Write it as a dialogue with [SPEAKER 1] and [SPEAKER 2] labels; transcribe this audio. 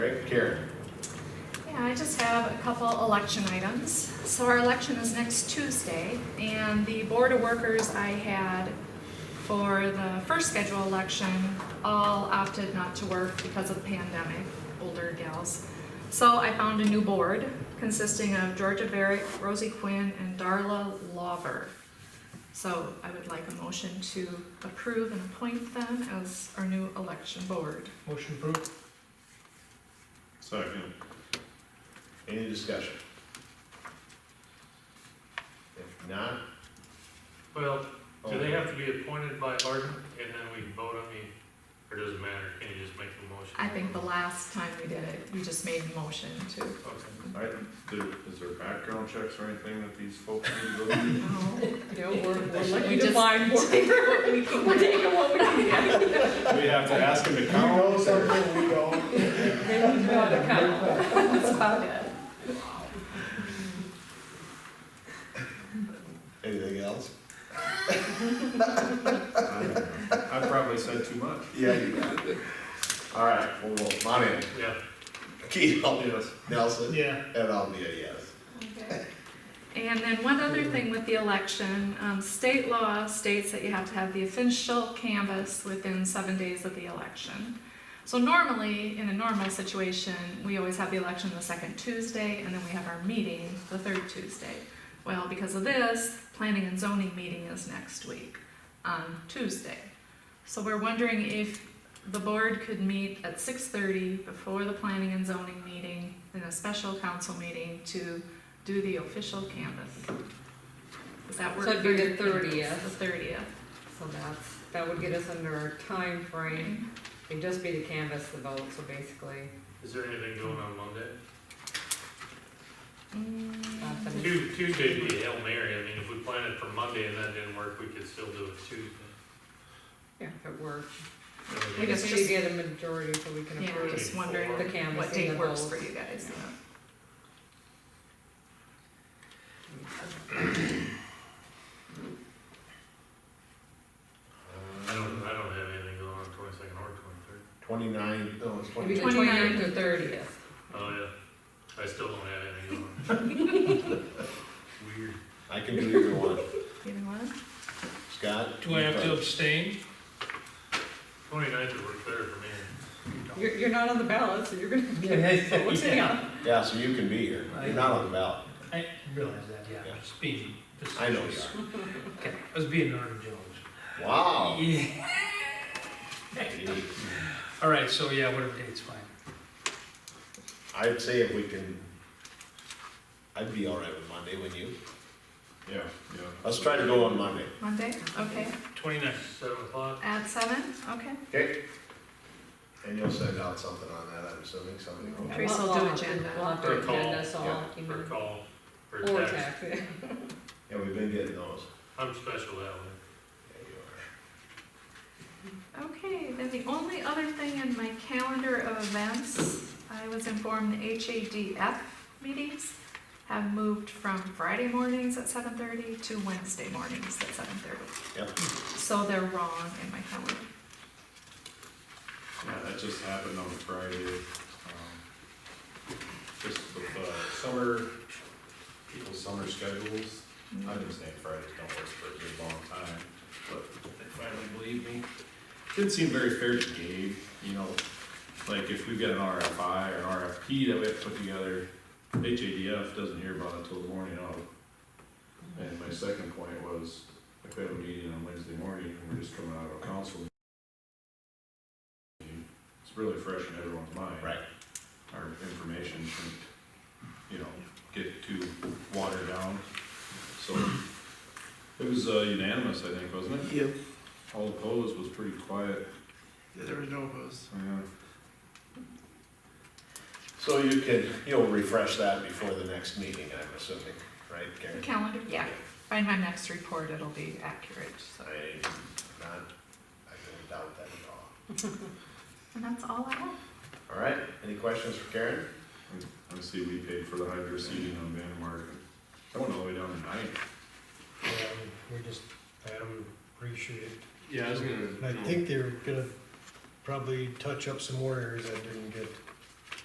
[SPEAKER 1] Okay, Karen.
[SPEAKER 2] Yeah, I just have a couple election items. So our election is next Tuesday, and the Board of Workers I had for the first scheduled election all opted not to work because of the pandemic, older gals. So I found a new board consisting of Georgia Varick, Rosie Quinn, and Darla Lawver. So I would like a motion to approve and appoint them as our new election board.
[SPEAKER 3] Motion approved.
[SPEAKER 1] Second. Any discussion? If not,
[SPEAKER 4] Well, do they
[SPEAKER 1] oh,
[SPEAKER 4] have to be appointed by Hardin and then we vote on the, or does it matter? Can you just make the motion?
[SPEAKER 2] I think the last time we did it, we just made a motion to
[SPEAKER 4] Okay.
[SPEAKER 5] I, there- is there background checks or anything that these folks need to go through?
[SPEAKER 2] No, we're
[SPEAKER 6] We define what
[SPEAKER 2] we
[SPEAKER 6] we're taking, what we can get.
[SPEAKER 5] We have to ask them to
[SPEAKER 3] You
[SPEAKER 5] come.
[SPEAKER 3] know something we don't.
[SPEAKER 6] Then we draw the count. That's about it.
[SPEAKER 1] anything else?
[SPEAKER 5] I probably said too much.
[SPEAKER 1] Yeah, you got it. All right, well, well, my name,
[SPEAKER 4] Yeah,
[SPEAKER 1] Keith,
[SPEAKER 5] Yes.
[SPEAKER 1] Nelson,
[SPEAKER 3] Yeah.
[SPEAKER 1] and I'll be a yes.
[SPEAKER 2] And then one other thing with the election, um, state law states that you have to have the official canvass within seven days of the election. So normally, in a normal situation, we always have the election the second Tuesday, and then we have our meeting the third Tuesday. Well, because of this, planning and zoning meeting is next week, on Tuesday. So we're wondering if the board could meet at six thirty before the planning and zoning meeting, in a special council meeting to do the official canvas. Does that work?
[SPEAKER 6] So it'd be the
[SPEAKER 2] for you?
[SPEAKER 6] 30th.
[SPEAKER 2] The thirtieth.
[SPEAKER 6] So that's, that would get us under our time frame. It'd just be the canvas, the vote, so basically,
[SPEAKER 4] is there anything going on Monday?
[SPEAKER 2] Mm.
[SPEAKER 6] not the-
[SPEAKER 4] Tu- Tuesday would be Hail Mary, I mean, if we plan it for Monday and that didn't work, we could still do it Tuesday.
[SPEAKER 6] yeah, if it worked.
[SPEAKER 2] We
[SPEAKER 6] We
[SPEAKER 2] just-
[SPEAKER 6] just need to get a majority so we can
[SPEAKER 2] Yeah, we're
[SPEAKER 6] approve
[SPEAKER 2] just wondering
[SPEAKER 6] the canvas.
[SPEAKER 2] what
[SPEAKER 6] and
[SPEAKER 2] date
[SPEAKER 6] the
[SPEAKER 2] works for
[SPEAKER 6] votes.
[SPEAKER 2] you guys.
[SPEAKER 4] Uh, I don't, I don't have anything going on twenty-second or twenty-third.
[SPEAKER 1] Twenty-nine, no, it's
[SPEAKER 6] Maybe the
[SPEAKER 1] twenty-nine.
[SPEAKER 2] 29th.
[SPEAKER 6] twenty-ninth or thirtieth.
[SPEAKER 4] Oh, yeah, I still don't have anything going on. Weird.
[SPEAKER 1] I can do either one.
[SPEAKER 2] You know what?
[SPEAKER 1] Scott?
[SPEAKER 3] Do I have to abstain?
[SPEAKER 4] Twenty-ninth would work better for me.
[SPEAKER 6] You're, you're not on the ballot, so you're gonna get votes anyhow.
[SPEAKER 1] Yeah, so you can be here. You're not on the ballot.
[SPEAKER 3] I realize that, yeah,
[SPEAKER 1] Yeah.
[SPEAKER 3] I'm just being.
[SPEAKER 1] I know you
[SPEAKER 3] facetious.
[SPEAKER 1] are.
[SPEAKER 3] Okay, I was being Norton Jones.
[SPEAKER 1] Wow.
[SPEAKER 3] Yeah.
[SPEAKER 1] Gee.
[SPEAKER 3] All right, so yeah, whatever date's fine.
[SPEAKER 1] I'd say if we can, I'd be all right with Monday, wouldn't you?
[SPEAKER 5] Yeah, yeah.
[SPEAKER 1] Let's try to go on Monday.
[SPEAKER 2] Monday, okay,
[SPEAKER 3] Twenty-nine.
[SPEAKER 4] Seven o'clock?
[SPEAKER 2] at seven, okay.
[SPEAKER 1] Okay. And you'll send out something on that, I'm assuming, something.
[SPEAKER 6] Yeah,
[SPEAKER 2] Chris
[SPEAKER 6] we'll-
[SPEAKER 2] will do
[SPEAKER 6] we'll have to-
[SPEAKER 2] agenda.
[SPEAKER 6] We'll have
[SPEAKER 4] Or
[SPEAKER 6] to
[SPEAKER 4] call,
[SPEAKER 6] agenda, so
[SPEAKER 1] yeah,
[SPEAKER 6] I'll
[SPEAKER 4] Or
[SPEAKER 6] email.
[SPEAKER 4] call, or
[SPEAKER 6] Or
[SPEAKER 4] text.
[SPEAKER 6] text, yeah.
[SPEAKER 1] Yeah, we've been getting those.
[SPEAKER 4] I'm special that way.
[SPEAKER 1] Yeah, you are.
[SPEAKER 2] Okay, then the only other thing in my calendar of events, I was informed the HADF meetings have moved from Friday mornings at seven thirty to Wednesday mornings at seven thirty.
[SPEAKER 1] Yep.
[SPEAKER 2] So they're wrong in my calendar.
[SPEAKER 5] Yeah, that just happened on Friday. um, Just with, uh, summer, people's summer schedules. I've been saying Fridays don't work for a good long time, but they finally believed me. Didn't seem very fair to Gabe, you know, like if we've got an RFI or an RFP that we have to put together, HADF doesn't hear about it till the morning of. And my second point was, if we have a meeting on Wednesday morning, and we're just coming out of a council. meeting, It's really fresh in everyone's mind.
[SPEAKER 1] Right.
[SPEAKER 5] Our information shouldn't, you know, get too watered down. So it was uh, unanimous, I think, wasn't it? Yep. All opposed was pretty quiet.
[SPEAKER 7] There was no opposed.
[SPEAKER 5] Yeah.
[SPEAKER 1] So you can, you'll refresh that before the next meeting, I'm assuming, right,
[SPEAKER 2] The
[SPEAKER 1] Karen?
[SPEAKER 2] calendar, yeah. By my next report, it'll be accurate, so.
[SPEAKER 1] I'm not, I don't doubt that at
[SPEAKER 2] And that's all I have.
[SPEAKER 1] all. All right, any questions for Karen?
[SPEAKER 5] I see we paid for the hydro seeding on Van Mark. I went all the way down to nine.
[SPEAKER 8] We just had them reshoot it.
[SPEAKER 4] Yeah, I was gonna.
[SPEAKER 8] And I think they're gonna probably touch up some more areas that didn't get